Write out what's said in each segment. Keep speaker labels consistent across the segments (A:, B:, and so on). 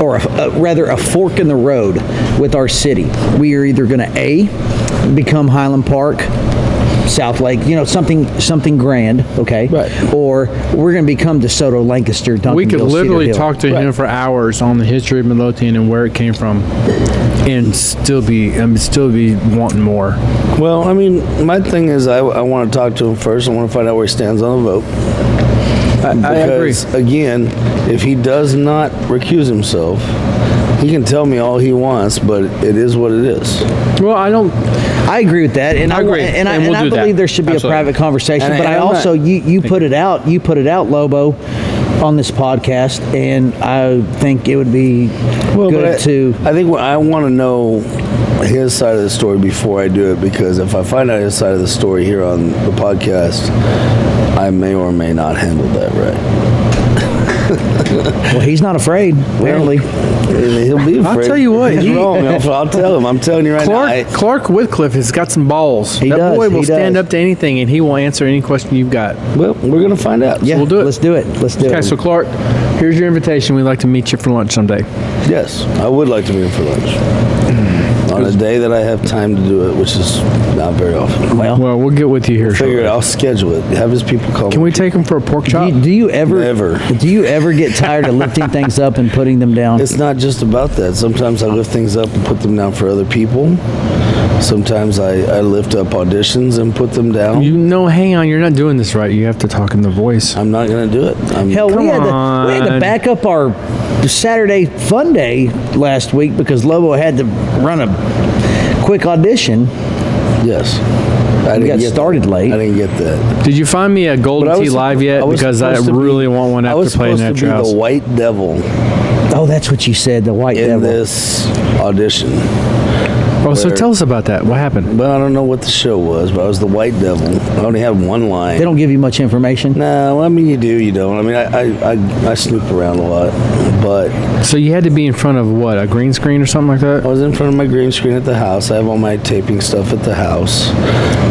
A: or a- a- rather a fork in the road with our city. We are either going to A, become Highland Park, South Lake, you know, something, something grand, okay?
B: Right.
A: Or we're going to become DeSoto, Lancaster, Duncanville,
B: We could literally
A: Cedar Hill.
B: talk to him for hours on the history of Midlothian and where it came from, and still be and still be wanting more.
C: Well, I mean, my thing is, I, I want to talk to him first. I want to find out where he stands on the vote.
B: I agree.
C: Because, Again, if he does not recuse himself, he can tell me all he wants, but it is what it is.
B: Well, I don't.
A: I agree with that, and I,
B: I agree,
A: and I,
B: and
A: and
B: we'll
A: I
B: do that.
A: believe there should be
B: Absolutely.
A: a private conversation.
C: And I-
A: but I,
C: and I'm not-
A: also you you put it out you put it out Lobo on this podcast, and I think it would be
C: But
A: good
C: I-
A: to.
C: I think what I want to know his side of the story before I do it because if I find out his side of the story here on the podcast, I may or may not handle that right.
A: Well, he's not afraid apparently.
C: He'll be afraid.
B: I'll tell you what,
C: He's
B: he-
C: wrong. I'll, I'll tell him. I'm telling you right
B: Clark
C: now. I-
B: Clark Whitcliffe has got some balls.
A: He
B: that
A: does,
B: boy
A: he
B: will stand
A: does.
B: up to anything, and he will answer any question you've got.
C: Well, we're gonna find out.
A: yeah,
B: we'll do it.
A: Let's do it. Let's do
B: Okay,
A: it.
B: so Clark, here's your invitation. We'd like to meet you for lunch someday.
C: Yes, I would like to be in for lunch on a day that I have time to do it, which is not very often.
A: well,
B: Well, we'll get with you here.
C: Figure
B: shortly.
C: it. I'll schedule it. Have his people call.
B: Can
C: me.
B: we take him for a pork
A: do
B: chop?
A: you, do you ever
C: Never.
A: do you ever get tired of lifting things up and putting them down?
C: It's not just about that. Sometimes I lift things up and put them down for other people. Sometimes I, I lift up auditions and put them down.
B: You know, hang on, you're not doing this right. You have to talk in the voice.
C: I'm not gonna do it. I'm,
A: Hell, we
B: Come
A: had, to, we had to
B: on.
A: back up our Saturday fun day last week because Lobo had to run a quick audition.
C: yes. I
A: We
C: didn't
A: got
C: get
A: started
C: that.
A: late.
C: I didn't get that.
B: Did you find me a
C: But
B: Golden
C: I
B: Tee
C: was-
B: live yet?
C: I was
B: because I
C: supposed to be-
B: really want one
C: I was
B: after playing
C: supposed
B: that
C: to be
B: house.
C: the white devil
A: Oh, that's what you said, the white
C: in
A: devil.
C: this audition.
B: Oh, so
C: where-
B: tell us about that. What happened?
C: Well, I don't know what the show was, but I was the White Devil. I only had one line.
A: They don't give you much information.
C: no, I mean you do, you don't. I mean I I, I, I snoop around a lot, but
B: So you had to be in front of what a green screen or something like
A: Oh.
C: I
B: that.
C: was in front of my green screen at the house. I have all my taping stuff at the house,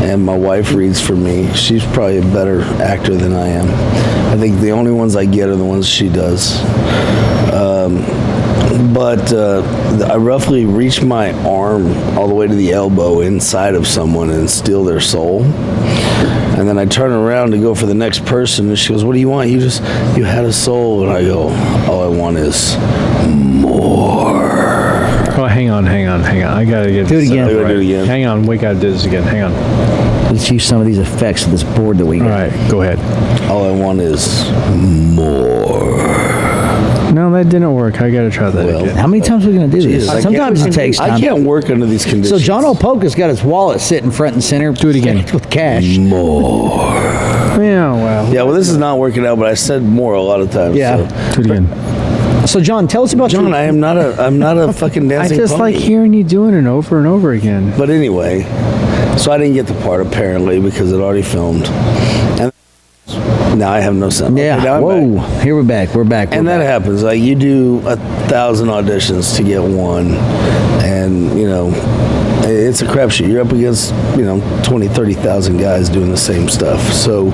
C: and my wife reads for me. She's probably a better actor than I am. I think the only ones I get are the ones she does. Um, but uh, I roughly reach my arm all the way to the elbow inside of someone and steal their soul. And then I turn around to go for the next person, and she goes, "What do you want? You just you had a soul." And I go, "All I want is."
B: Oh, hang on, hang on, hang on. I gotta get
A: Do it
B: this
A: again.
B: set
C: Do
B: up
C: it
B: right.
C: again.
B: Hang on, we gotta do this again. Hang on.
A: Let's use some of these effects of this board that we
B: All
A: got.
B: right, go ahead.
C: All I want is more.
B: No, that didn't work. I gotta try that
C: Well,
B: again.
A: How many times are we going to do
C: Jeez, I
A: this?
C: can't-
A: Sometimes it takes
C: I
A: time.
C: can't work under these
A: So
C: conditions.
A: John Opoka's got his wallet sitting front and center. Do
B: it again.
A: With cash.
B: Yeah, well.
C: Yeah, well, this is not working out, but I said more a lot of times.
A: Yeah.
C: so.
B: Do it again.
A: So John, tell us about
C: Mm. John,
A: your.
C: I am not a, I'm not a fucking
B: I
C: dancing.
B: just like
C: pony.
B: hearing you doing it over and over again.
C: But anyway, so I didn't get the part apparently because it already filmed, and now I have no sound.
A: yeah.
C: Okay, now I'm
A: Whoa.
C: back.
A: Here we're back. We're back.
C: And
A: we're
C: that
A: back.
C: happens. Like you do a thousand auditions to get one, and you know, it's a crapshoot. You're up against you know 20, 30,000 guys doing the same stuff. So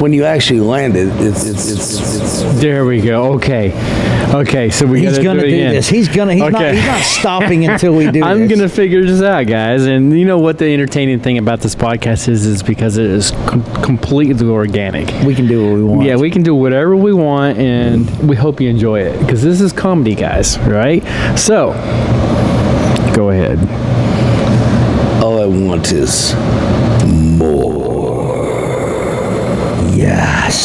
C: when you actually land it, it's it's it's, it's, it's
B: There we go. Okay. Okay, so we
A: He's
B: gotta
A: gonna
B: do,
A: do,
B: it again.
A: this. He's gonna. He's, not,
B: Okay.
A: he's not stopping until we do
B: I'm
A: this.
B: gonna figure this out, guys. And you know what the entertaining thing about this podcast is? Is because it is com- completely organic.
A: We can do what we want.
B: Yeah, we can do whatever we want, and we hope you enjoy it because this is comedy, guys. Right? So, go ahead.
C: All I want is
A: Yes.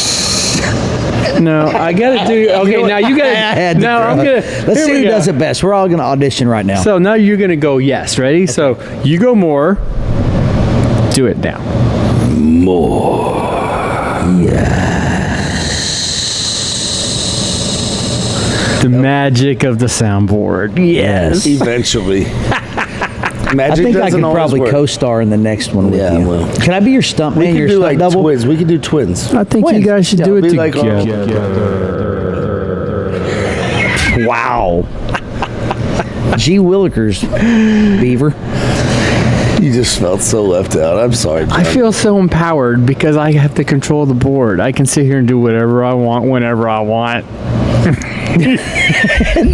B: No, I gotta do. Okay, now you
A: I
B: gotta.
A: had to
B: No, I'm
A: throw
B: gonna.
A: it. Let's
B: here
A: see
B: we
A: who
B: go.
A: does it best. We're all gonna audition right now.
B: So now you're gonna go. Yes, ready? So you go more. Do it now. The magic of the soundboard. Yes.
C: eventually.
A: I
C: Magic
A: think I
C: doesn't
A: can
C: always
A: probably
C: work.
A: co-star in the next one with
C: Yeah,
A: you.
C: well.
A: Can I be your stunt
C: We
A: man?
C: could
A: Your
C: do
A: stunt
C: like
A: double?
C: twins. We could do twins.
B: I think
A: Twins.
B: you guys should
A: Yeah,
B: do it
C: be like all
B: together.
A: Wow. G. Willikers, Beaver.
C: You just felt so left out. I'm sorry. John.
B: I feel so empowered because I have to control the board. I can sit here and do whatever I want whenever I want.